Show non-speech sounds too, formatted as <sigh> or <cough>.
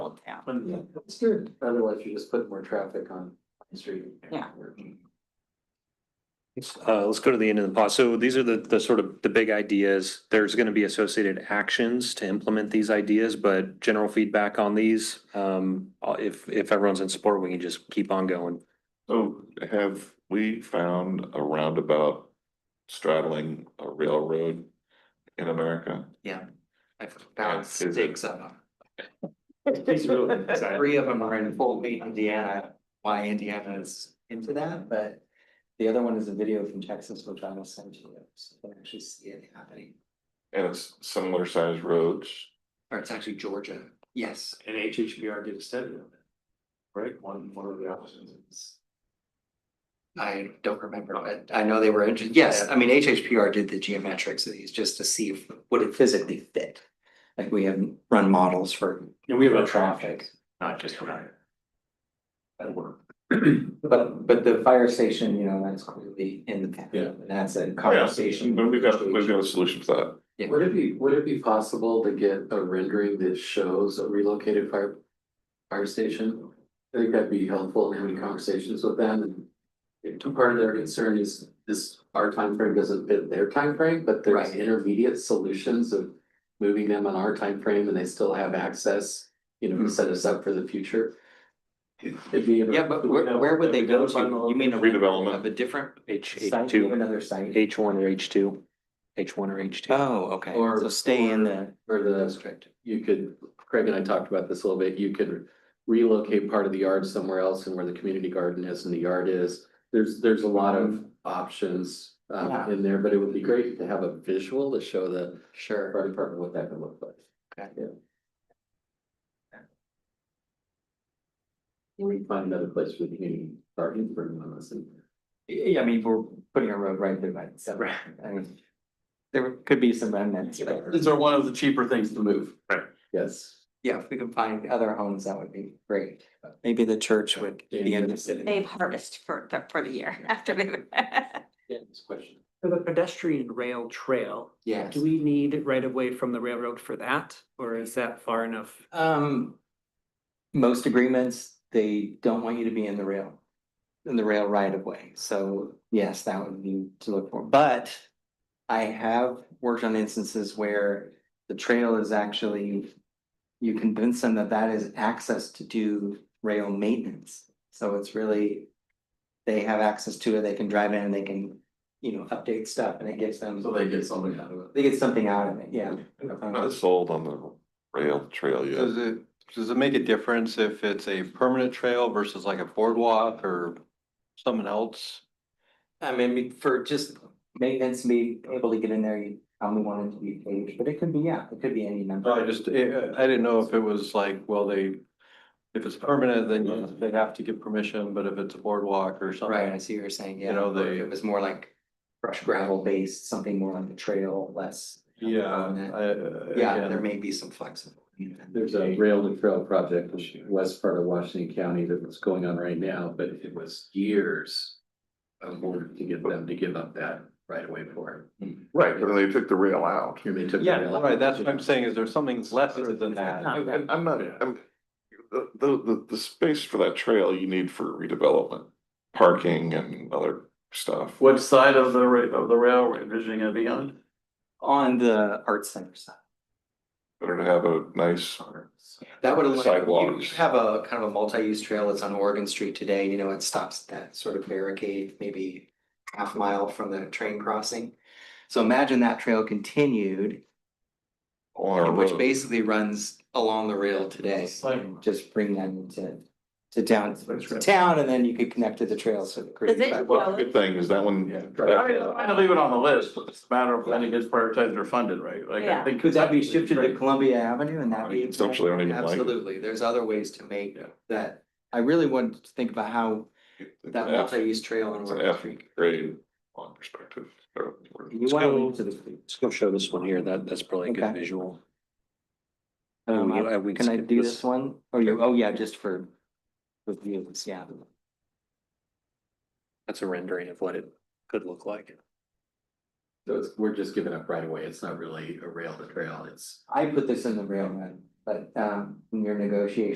Yeah, and that's good. otherwise you just put more traffic on the street. Yeah. Uh, let's go to the end of the pause. So these are the, the sort of the big ideas. There's going to be associated actions to implement these ideas, but general feedback on these. Um, uh, if, if everyone's in support, we can just keep on going. So have we found a roundabout straddling a railroad in America? Yeah. I've Yeah, found is it- six of them. He's <laughs> really excited. Three of them are in Fort Wayne, Indiana, why Indiana is into that, but the other one is a video from Texas, which I will send to you, so you can actually see it happening. And it's similar sized roads, Or it's actually Georgia, yes. And HHBR did a study on it. Right, one, one of the options. I don't remember, but I know they were, inter- yes, I mean, HHPR did the geometrics of these just to see if, would it physically fit? Like we have run models for And we have a traffic. not just around. That <clears throat> work. But, but the fire station, you know, that's clearly in the, Yeah. and that's a conversation. but we've got, we've got a solution for that. Would it be, would it be possible to get a rendering that shows a relocated fire, fire station? I think that'd be helpful in having conversations with them and. If part of their concern is this, our time frame doesn't fit their time frame, but there's Right. intermediate solutions of. Moving them on our time frame and they still have access, you know, to set us up for the future. It'd be. Hmm. Yeah, but where, where would they go to? You mean a Redevelopment. Of a different H, H site to two, another site? H one or H two, H one or H two. Oh, okay, Or- so stay in the Or the district. you could, Craig and I talked about this a little bit, you could relocate part of the yard somewhere else and where the community garden is and the yard is. There's, there's a lot of options Yeah. um in there, but it would be great to have a visual to show the Sure. fire department what that could look like. Okay. Yeah. We can find another place for the community garden for anyone listening. Yeah, I mean, we're putting a road right through that, so, I mean, there could be some remnants there. are one of the cheaper things to move. Right. Yes. Yeah, if we could find other homes, that would be great. Maybe the church would be interested. They've harvested for the, for the year <laughs> after they've. Yeah, this question. For the pedestrian rail trail, Yes. do we need right of way from the railroad for that, or is that far enough? Um, most agreements, they don't want you to be in the rail, in the rail right of way. So yes, that would be to look for, but I have worked on instances where the trail is actually, you convince them that that is access to do rail maintenance. So it's really, they have access to it, they can drive in and they can, you know, update stuff and it gives them, So they get something out of it. they get something out of it, yeah. I'm not sold on the rail trail Does yet. it, does it make a difference if it's a permanent trail versus like a boardwalk or something else? I mean, for just maintenance, be able to get in there, you only want it to be paved, but it could be, yeah, it could be any I number. just, eh, I I didn't know if it was like, well, they, if it's permanent, then they have to get permission, but if it's a boardwk or Right, I something. see what you're saying, You yeah, know, or if they- it was more like brush gravel based, something more like a trail, less. Yeah, I. uh, Yeah, again, there may be some flexibility. There's a rail to trail project in west part of Washington County that was going on right now, but it was years. Of work to get them to give up that right away for Right, but they took the rail out. it. Here they took. the Yeah, rail. right, that's what I'm saying, is there something lesser than that? I'm, I'm- I'm not, I'm, the, the, the, the space for that trail you need for redevelopment, parking and other stuff. What side of the ra- of the railroad vision gonna be on? On the arts center side. Better to have a nice That would allow, you- you Sidewalks. have a kind of a multi-use trail that's on Oregon Street today, you know, it stops at that sort of barricade, maybe half mile from the train crossing. So imagine that trail continued, on a which road. basically runs along the rail today. Just bring them into, to down, to town, and then you could connect to the trails. so it creates Does it- that- Well, good thing is that one. Yeah. I mean, I'm gonna leave it on the list, but it's a matter of when it gets prioritized or funded, right? Like, I Yeah. think. Could that be shifted to Columbia Avenue and that be? It's actually, I don't even like it. Absolutely, there's other ways to make Yeah. that, I really wanted to think about how that Yeah. multi-use trail on It's an Oregon F. Street. Great on perspective. or- or- You Let's wanna go- link to the. Let's go show this one here. That, that's probably a good Okay. visual. Um, we- uh, we Can I skip do this. this one? Or you, oh yeah, just for. For views, yeah. That's a rendering of what it could look like. So it's, we're just giving up right away. It's not really a rail to trail, it's. I put this in the rail, man, but um, in your negotiation.